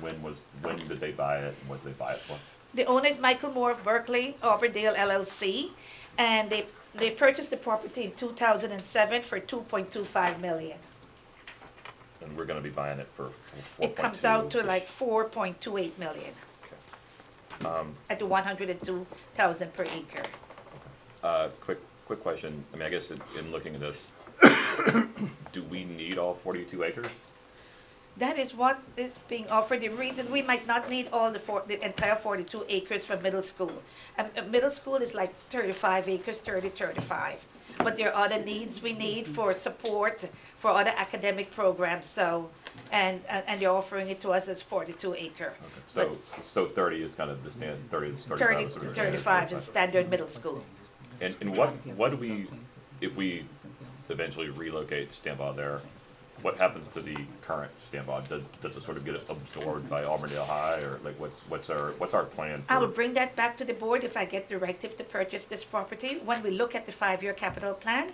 When was, when did they buy it and what did they buy it for? The owner is Michael Moore of Berkeley, Auburndale LLC, and they, they purchased the property in two thousand and seven for two point two five million. And we're gonna be buying it for four point two. It comes out to like four point two eight million at the one hundred and two thousand per acre. Uh, quick, quick question. I mean, I guess in, in looking at this, do we need all forty-two acres? That is what is being offered, the reason we might not need all the four, the entire forty-two acres for middle school. Um, uh, middle school is like thirty-five acres, 30, 35. But there are other needs we need for support, for other academic programs, so, and, and and you're offering it to us as forty-two acre. So, But so thirty is kind of the standard, thirty is thirty-five. Thirty is to sort of thirty-five standard. is standard middle school. And, and what, what do we, if we eventually relocate Stambaugh there, what happens to the current Stambaugh? Does, does it sort of get absorbed by Auburndale High or like what's, what's our, what's our plan for? I will bring that back to the board if I get directive to purchase this property. When we look at the five-year capital plan,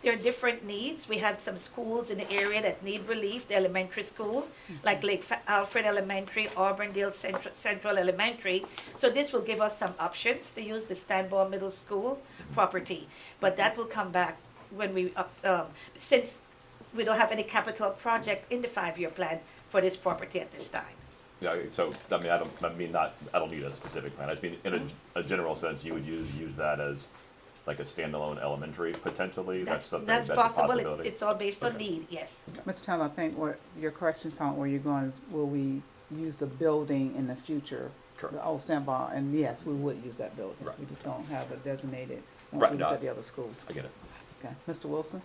there are different needs. We have some schools in the area that need relief, the elementary school, like Lake Fa- Alfred Elementary, Auburndale Central, Central Elementary. So this will give us some options to use the Stanbaugh Middle School property. But that will come back when we, up- um, since we don't have any capital project in the five-year plan for this property at this time. Yeah, so, I mean, I don't, I mean, not, I don't need a specific plan, I just mean, in a, a general sense, you would use, use that as like a standalone elementary potentially, that's That's, something, that's that's a possible. It- possibility. It's all based on Okay. need, yes. Mr. Towns, I think what your question on where you're going is, will we use the building in the future? Correct. The old standby, and yes, we would use that building. Right. We just don't have it designated Right, once we no. look at the other schools. I get it, Okay, Mr. Wilson?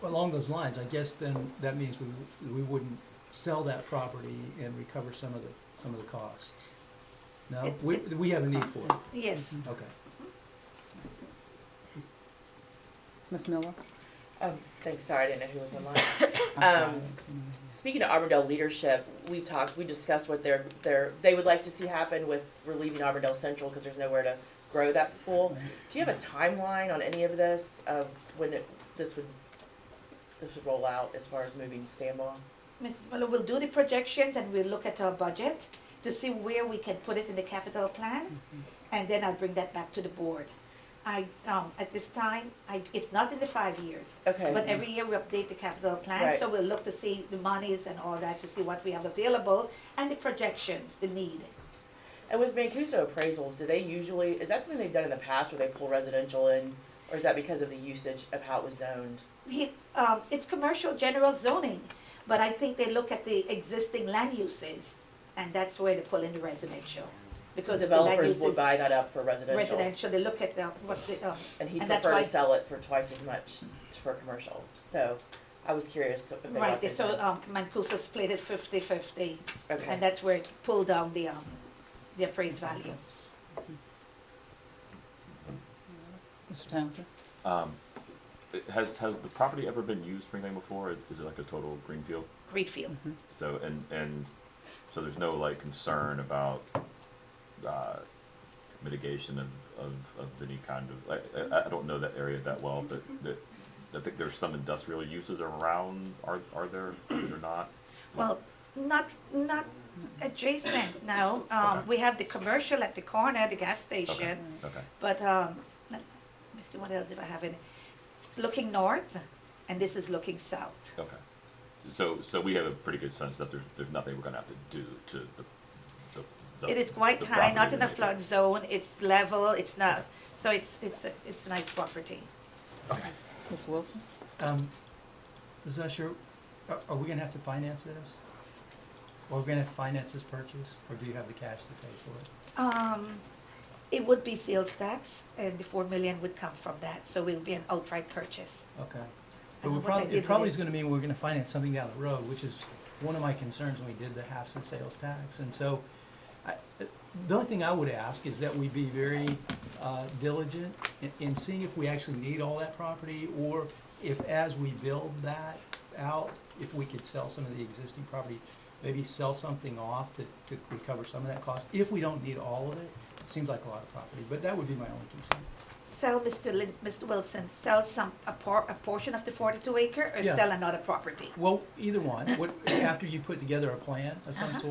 Well, Along those lines, I guess then that means we, we wouldn't sell that property and recover some of the, some of the costs. No, we, we have a need for it, Yes. okay. Ms. Miller? Um, thanks. Sorry, I didn't know who was in line. Um, Speaking of Auburndale leadership, we've talked, we discussed what they're, they're, they would like to see happen with relieving Auburndale Central because there's nowhere to grow that school. Do you have a timeline on any of this of when it, this would, this would roll out as far as moving Stanbaugh? Mm-hmm. Mrs. Muller, we'll do the projections and we'll look at our budget to see where we can put it in the capital plan. Mm-hmm. And then I'll bring that back to the board. I, um, at this time, I, it's not in the five years. Okay. But every year we update the capital plan, Right. so we'll look to see the monies and all that, to see what we have available and the projections, the need. And with Mancuso appraisals, do they usually, is that something they've done in the past where they pull residential in? Or is that because of the usage of how it was zoned? He, um, it's commercial general zoning, but I think they look at the existing land uses, and that's where they pull in the residential. Because of the land Developers would uses, buy that up for residential. residential, they look at the, what the, um, And he'd And that's prefer why- to sell it for twice as much for commercial. So I was curious if they right, got they this. saw, um, Mancuso split it fifty-fifty, Okay. and that's where it pulled down the, um, the appraised value. Mr. Townsend? um, it- has, has the property ever been used for anything before, is, is it like a total greenfield? Greenfield, Mm-hmm. So, and, and, so there's no like concern about, uh, mitigation of, of, of any kind of, like, I, I don't know that area that well, but that, I think there's some industrial uses around, are, are there, are there not? Mm-hmm. well, not, not adjacent now, um, Okay. we have the commercial at the corner, the gas Okay, station, okay. But um, let me see what else if I have it. Looking north, and this is looking south. Okay. So, so we have a pretty good sense that there's, there's nothing we're gonna have to do to the, the- the. It is quite the high, not property in a to make it- flood zone. It's level. It's not. So it's it's a, it's a nice property. Mr. Wilson? Um, Ms. Usher, are, are we gonna have to finance this? Or are we gonna have to finance this purchase, or do you have the cash to pay for it? Um, it would be sales tax, and the four million would come from that. So it would be an outright purchase. Okay. And But we what they probably, did it probably with is gonna mean we're gonna finance something down the road, which is one of my concerns when we did the halves and sales tax. And so, I, the only thing I would ask is that we be very uh, diligent in, in seeing if we actually need all that property, or if as we build that out, if we could sell some of the existing property, maybe sell something off to, to recover some of that cost, if we don't need all of it. It seems like a lot of property, but that would be my only concern. Sell Mr. Lin- Mr. Wilson. Sell some a, por- a portion of the forty-two acre, or Yeah. sell another property. Well, either one, what, after you put together a plan of some Uh-huh. sort.